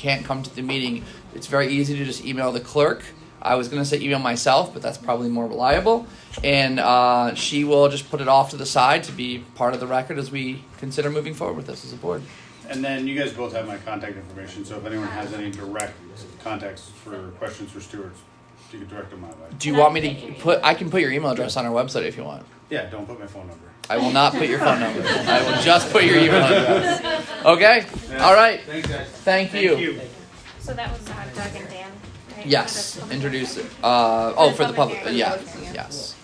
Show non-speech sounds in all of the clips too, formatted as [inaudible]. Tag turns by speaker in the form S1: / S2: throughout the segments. S1: can't come to the meeting, it's very easy to just email the clerk. I was going to say email myself, but that's probably more reliable. And uh, she will just put it off to the side to be part of the record as we consider moving forward with this as a board.
S2: And then you guys both have my contact information, so if anyone has any direct contacts for questions for Stuart, you can direct them my way.
S1: Do you want me to put? I can put your email address on our website if you want.
S2: Yeah, don't put my phone number.
S1: I will not put your phone number. I will just put your email address. Okay. All right.
S2: Thanks, guys.
S1: Thank you.
S3: So that was uh, Doug and Dan. right? For
S1: Yes.
S3: the public
S1: Introduce it.
S3: record.
S1: Uh, oh, for
S3: For
S1: the
S3: the
S1: public.
S3: public
S1: Yeah.
S3: hearing.
S1: Yes.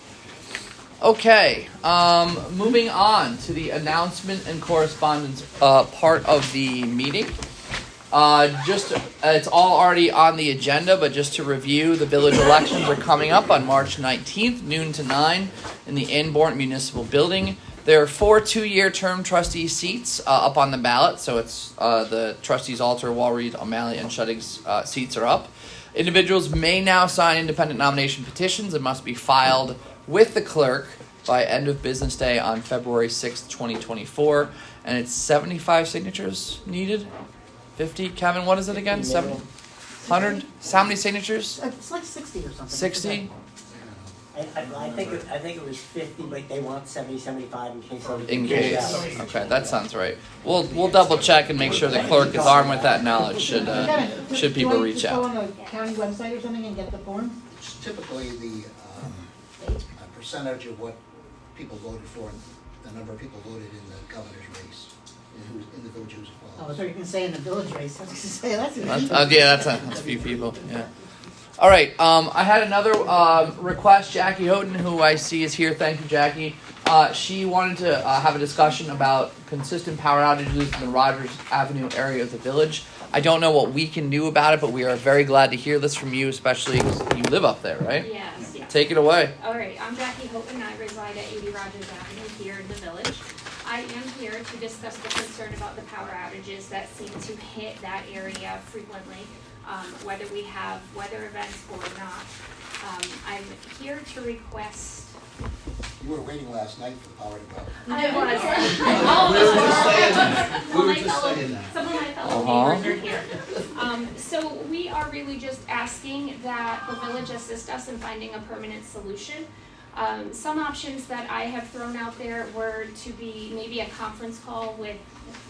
S1: Okay. Um, moving on to the announcement and correspondence uh, part of the meeting. Uh, just uh, it's all already on the agenda, but just to review, the village elections are coming up on March 19th, noon to nine, in the Anborn Municipal Building. There are four two-year term trustee seats uh, up on the ballot, so it's uh, the trustees Alter, Walreed, O'Malley, and Shutting's uh, seats are up. Individuals may now sign independent nomination petitions and must be filed with the clerk by end of business day on February 6th, 2024, and it's 75 signatures needed. 50 kevin what is it again 700 how many signatures
S4: It's like sixty or something.
S1: 60
S5: I, I, I think, it-
S1: Uh,
S5: I think it was fifty, but they want seventy, seventy-five in case. somebody
S1: in
S5: figures
S1: case
S5: out.
S1: okay that sounds right we'll we'll double check and make sure the clerk is armed with that knowledge should uh,
S4: Kevin,
S1: should
S4: do you
S1: people
S4: want to
S1: reach
S4: just
S1: out
S4: go on the county website or something and get the form?
S6: It's typically the um, uh, percentage of what people voted for, and the number of people voted in the governor's race, in who's- in the village who's
S4: Oh,
S6: involved.
S4: so you can say in the village race, I was gonna say, that's.
S1: That's- uh, yeah, that's a, that's a few people. Yeah. All right. Um, I had another um, request. Jackie Houghton, who I see is here. Thank you, Jackie. Uh, she wanted to uh, have a discussion about consistent power outages in the Rogers Avenue area of the village. I don't know what we can do about it, but we are very glad to hear this from you, especially 'cause you live up there, right?
S3: Yes, yes.
S1: Take it away.
S3: All right, I'm Jackie Houghton, I reside at 80 Rogers Avenue here in the village. I am here to discuss the concern about the power outages that seem to hit that area frequently, um, whether we have weather events or not. Um, I'm here to request.
S6: You were waiting last night for power to go.
S3: I
S6: [laughs]
S3: was. All of us were.
S6: We were
S3: My
S6: just
S3: fellow-
S6: saying that.
S3: Some of my fellow
S1: Uh-huh.
S3: neighbors are here. Um, so we are really just asking that the village assist us in finding a permanent solution. Um, some options that I have thrown out there were to be maybe a conference call with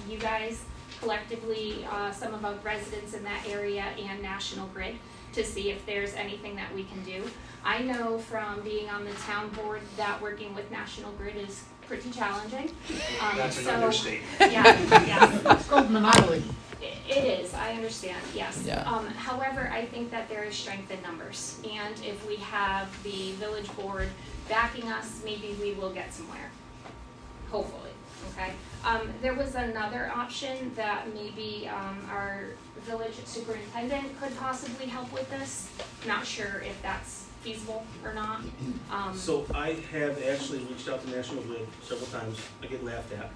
S3: you guys collectively, uh, some of our residents in that area and National Grid to see if there's anything that we can do. I know from being on the town board that working with National Grid is pretty challenging. Um,
S7: That's an
S3: so-
S7: understatement.
S3: Yeah, yeah.
S4: It's called monopoly.
S3: It- It is, I understand, yes.
S1: Yeah.
S3: Um, however, I think that there is strength in numbers, and if we have the village board backing us, maybe we will get somewhere. Hopefully, okay? Um, there was another option that maybe, um, our village superintendent could possibly help with this. Not sure if that's feasible or not, um,
S8: So I have actually reached out to National Grid several times, I get laughed at.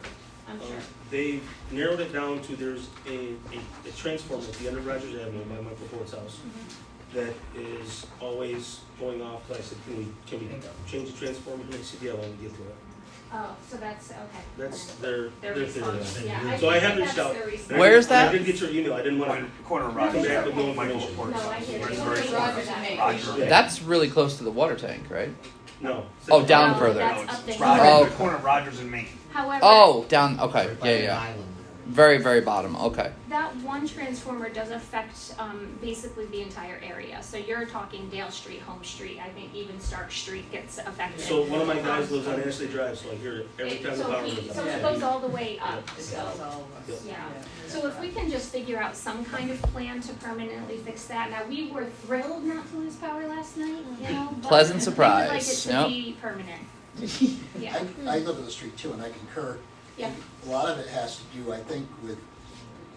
S3: I'm
S8: Um,
S3: sure.
S8: They've narrowed it down to there's a, a, a transformer at the end of Rogers Avenue by Michael Ford's house
S3: Mm-hmm.
S8: that is always going off, So I said, can we, can we change the transformer, can we see the to get to it?
S3: Oh, so that's, okay.
S8: uh, That's their,
S3: Their
S8: their theory. of
S3: response,
S8: it.
S3: yeah, I
S8: So I
S3: think
S8: have
S3: that's
S8: reached out.
S3: their response.
S1: Where's
S8: I
S1: that?
S8: did get your email, I didn't wanna,
S7: Corner of Rogers.
S8: Back to Bill
S7: Michael's
S8: Michael.
S7: Corner.
S3: No, I hear you.
S7: It's very
S3: Rogers
S7: corner.
S3: and Maple.
S7: Rogers.
S1: That's really close to the water tank, right?
S8: no.
S1: Oh, down
S3: No,
S1: further.
S3: that's
S7: No, it's-
S3: up
S7: it's
S3: there.
S1: Oh.
S7: Rogers, the corner of Rogers and Main.
S3: However.
S1: Oh, down. Okay.
S6: Right by
S1: Yeah,
S6: an
S1: yeah.
S6: island there.
S1: Very, very bottom. Okay.
S3: That one transformer does affect um, basically the entire area. So you're talking Dale Street, Home Street, I think even Stark Street gets affected.
S8: So one of my guys lives on Ashley Drive, so I hear it every
S3: It-
S8: time the
S3: so
S8: power
S3: he-
S8: goes
S3: So
S8: out.
S3: it goes all the way up, so, yeah. So if we can just figure out some kind of plan to permanently fix that. Now, we were thrilled not to lose power last night, you know? but
S1: Pleasant
S3: We would like it
S1: surprise.
S3: to
S1: Yep.
S3: be permanent. [laughs] Yeah,
S6: I, I live on the street too, and I concur.
S3: Yeah.
S6: A lot of it has to do, I think, with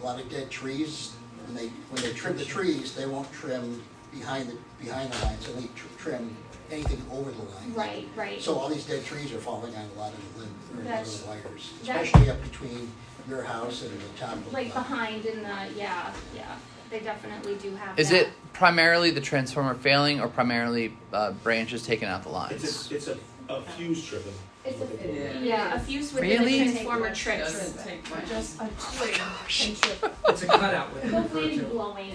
S6: a lot of dead trees. When they, when they trim the trees, they won't trim behind the, behind the lines, they only tr- trim anything over the lines.
S3: right, right.
S6: So all these dead trees are falling on a lot of the limb, or a lot of
S3: That's-
S6: the wires,
S3: that-
S6: especially up between your house and the top of the.
S3: Like behind in the, yeah, yeah. They definitely do have that.
S1: Is it primarily the transformer failing, or primarily uh, branches taking out the lines?
S8: It's a, it's a, a fuse driven.
S3: It's a,
S4: Yeah.
S3: yeah, a fuse within
S1: Really?
S3: a transformer trips.
S4: Doesn't take much. Just a twig and trip. It's a cutout with it.
S3: Hopefully it's blowing